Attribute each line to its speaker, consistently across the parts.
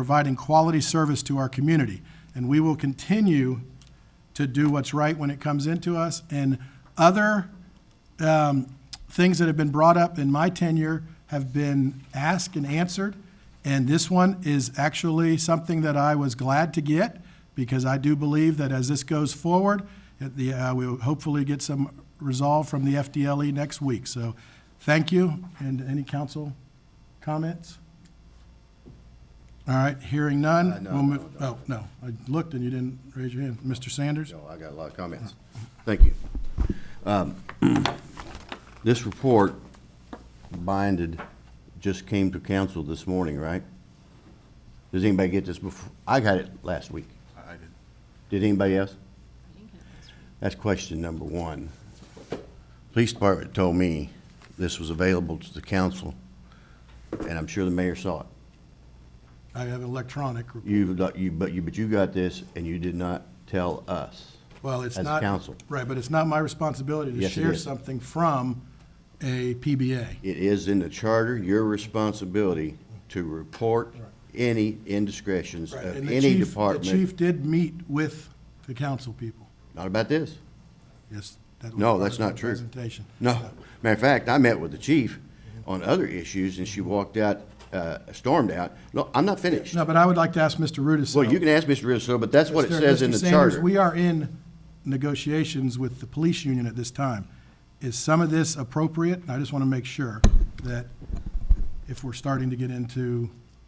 Speaker 1: providing quality service to our community. And we will continue to do what's right when it comes into us. And other um, things that have been brought up in my tenure have been asked and answered. And this one is actually something that I was glad to get because I do believe that as this goes forward, that the, uh, we will hopefully get some resolve from the FDLE E next week. So thank you. And any council comments? All right, hearing
Speaker 2: Uh,
Speaker 1: none.
Speaker 2: no,
Speaker 1: we'll
Speaker 2: no,
Speaker 1: move- Oh, no, I looked and you didn't raise your hand. Mr. Sanders?
Speaker 2: No, I got a lot of comments. Thank you. Um, This report binded, just came to council this morning, right? Does anybody get this before? I got it last week. I did. Did anybody else? That's question number one. Police Department told me this was available to the council, and I'm sure the mayor saw it.
Speaker 1: I have electronic. report.
Speaker 2: You, you- but you, but you got this, and you did not tell us.
Speaker 1: Well, it's
Speaker 2: as a
Speaker 1: not.
Speaker 2: council.
Speaker 1: Right, but it's not my responsibility to
Speaker 2: Yes, it
Speaker 1: share
Speaker 2: is.
Speaker 1: something from a PBA.
Speaker 2: It is in the charter, your responsibility to report any indiscretions
Speaker 1: Right,
Speaker 2: of
Speaker 1: and the
Speaker 2: any
Speaker 1: chief- The
Speaker 2: department.
Speaker 1: chief did meet with the council people.
Speaker 2: Not about this.
Speaker 1: Yes. that was
Speaker 2: No,
Speaker 1: part
Speaker 2: that's
Speaker 1: of the
Speaker 2: not true.
Speaker 1: Presentation.
Speaker 2: No. Matter of fact, I met with the chief on other issues and she walked out, uh, stormed out. No, I'm not finished.
Speaker 1: No, but I would like to ask Mr. Rudis.
Speaker 2: Well, you can ask Mr. Rizzo, but that's what it
Speaker 1: Mr.
Speaker 2: says in
Speaker 1: Mr.
Speaker 2: the
Speaker 1: Sanders,
Speaker 2: charter.
Speaker 1: We are in negotiations with the police union at this time. Is some of this appropriate? And I just want to make sure that if we're starting to get into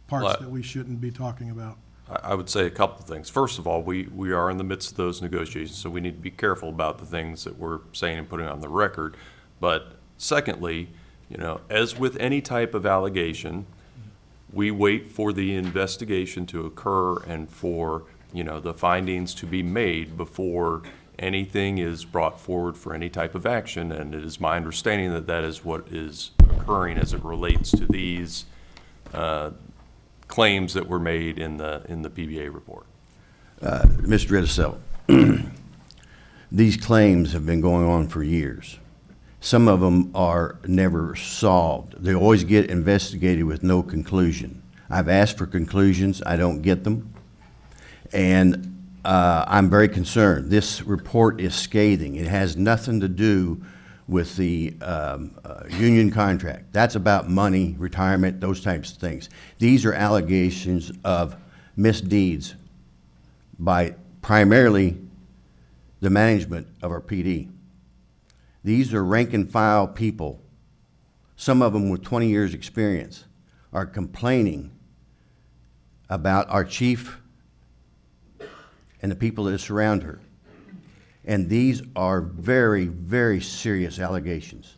Speaker 3: Well,
Speaker 1: parts
Speaker 3: I-
Speaker 1: that we shouldn't be talking about.
Speaker 3: I, I would say a couple of things. First of all, we, we are in the midst of those negotiations, so we need to be careful about the things that we're saying and putting on the record. But secondly, you know, as with any type of allegation, we wait for the investigation to occur and for, you know, the findings to be made before anything is brought forward for any type of action. And it is my understanding that that is what is occurring as it relates to these claims that were made in the, in the PBA report.
Speaker 2: Mr. Rizzo, these claims have been going on for years. Some of them are never solved. They always get investigated with no conclusion. I've asked for conclusions, I don't get them. And uh, I'm very concerned. This report is scathing. It has nothing to do with the um, uh, union contract. That's about money, retirement, those types of things. These are allegations of misdeeds by primarily the management of our PD. These are rank and file people, some of them with 20 years' experience, are complaining about our chief and the people that surround her. And these are very, very serious allegations.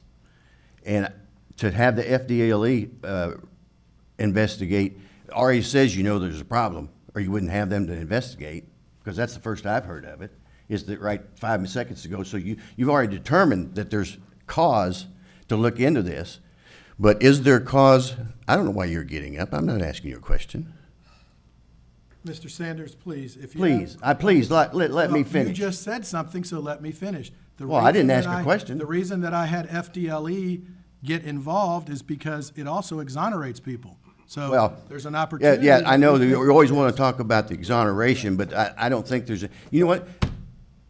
Speaker 2: And to have the FDLE uh, investigate, already says you know there's a problem, or you wouldn't have them to investigate, because that's the first I've heard of it, is that right five seconds ago. So you, you've already determined that there's cause to look into this, but is there cause? I don't know why you're getting up. I'm not asking you a question.
Speaker 1: Mr. Sanders, please, if you. have-
Speaker 2: Please, I, please, let, let, let me
Speaker 1: Well,
Speaker 2: finish.
Speaker 1: You just said something, so let me finish. The
Speaker 2: Well, I didn't
Speaker 1: reason
Speaker 2: ask
Speaker 1: that
Speaker 2: a
Speaker 1: I-
Speaker 2: question.
Speaker 1: The reason that I had FDLE E get involved is because it also exonerates people. So
Speaker 2: Well,
Speaker 1: there's an
Speaker 2: yeah,
Speaker 1: opportunity.
Speaker 2: Yeah, I know, that
Speaker 1: we
Speaker 2: you
Speaker 1: can-
Speaker 2: always want to talk about the exoneration, but I, I don't think there's, a you know what?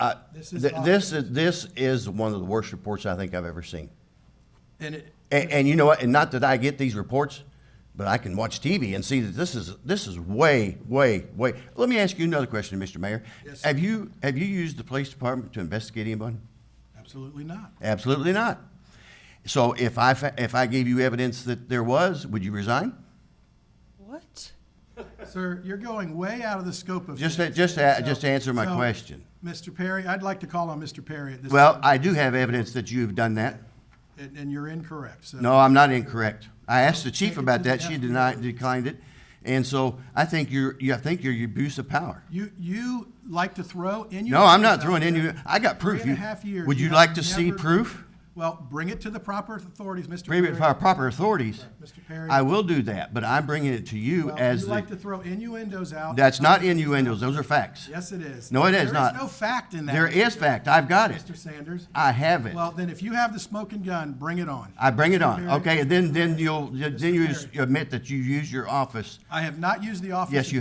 Speaker 2: I-
Speaker 1: This is
Speaker 2: th-
Speaker 1: awful.
Speaker 2: This is, this is one of the worst reports I think I've ever seen.
Speaker 1: And it,
Speaker 2: And, and you know what, and not that I get these reports, but I can watch TV and see that this is, this is way, way, way. Let me ask you another question, Mr. Mayor.
Speaker 1: Yes.
Speaker 2: Have you, have you used the police department to investigate anyone?
Speaker 1: absolutely not.
Speaker 2: Absolutely not. So if I, fa- if I gave you evidence that there was, would you resign?
Speaker 4: What?
Speaker 1: Sir, you're going way out of the scope of.
Speaker 2: Just,
Speaker 1: things.
Speaker 2: just,
Speaker 1: So-
Speaker 2: just answer my
Speaker 1: so,
Speaker 2: question.
Speaker 1: Mr. Perry, I'd like to call on Mr. Perry at this.
Speaker 2: Well,
Speaker 1: time,
Speaker 2: I do have evidence that you've done that.
Speaker 1: And, and you're incorrect, so.
Speaker 2: No, I'm not incorrect. I asked the chief
Speaker 1: Take it to
Speaker 2: about
Speaker 1: the
Speaker 2: that. She
Speaker 1: F.
Speaker 2: denied, declined it. And so I think you're, you, I think you're abuse of power.
Speaker 1: You, you like to throw in.
Speaker 2: No, I'm not throwing any, I got proof.
Speaker 1: Three and
Speaker 2: You-
Speaker 1: a half years.
Speaker 2: Would you
Speaker 1: have
Speaker 2: like to see
Speaker 1: never-
Speaker 2: proof?
Speaker 1: Well, bring it to the proper authorities, Mr.
Speaker 2: Bring it
Speaker 1: Perry.
Speaker 2: to our proper authorities.
Speaker 1: Mr. Perry.
Speaker 2: I will do that, but I'm bringing it to you
Speaker 1: Well,
Speaker 2: as
Speaker 1: Oh, You like to
Speaker 2: the,
Speaker 1: throw innuendos out. Oh,
Speaker 2: that's not innuendos, those are facts.
Speaker 1: Yes, it is.
Speaker 2: No, it is not.
Speaker 1: There is no fact in that.
Speaker 2: There is fact, I've got it.
Speaker 1: Mr. Sanders.
Speaker 2: I have it.
Speaker 1: Well, then if you have the smoking gun, bring it on.
Speaker 2: I bring it on,
Speaker 1: Perry.
Speaker 2: okay, and then, then you'll, then you
Speaker 1: Perry.
Speaker 2: admit that you use your office
Speaker 1: I have not used the office.
Speaker 2: Yes, you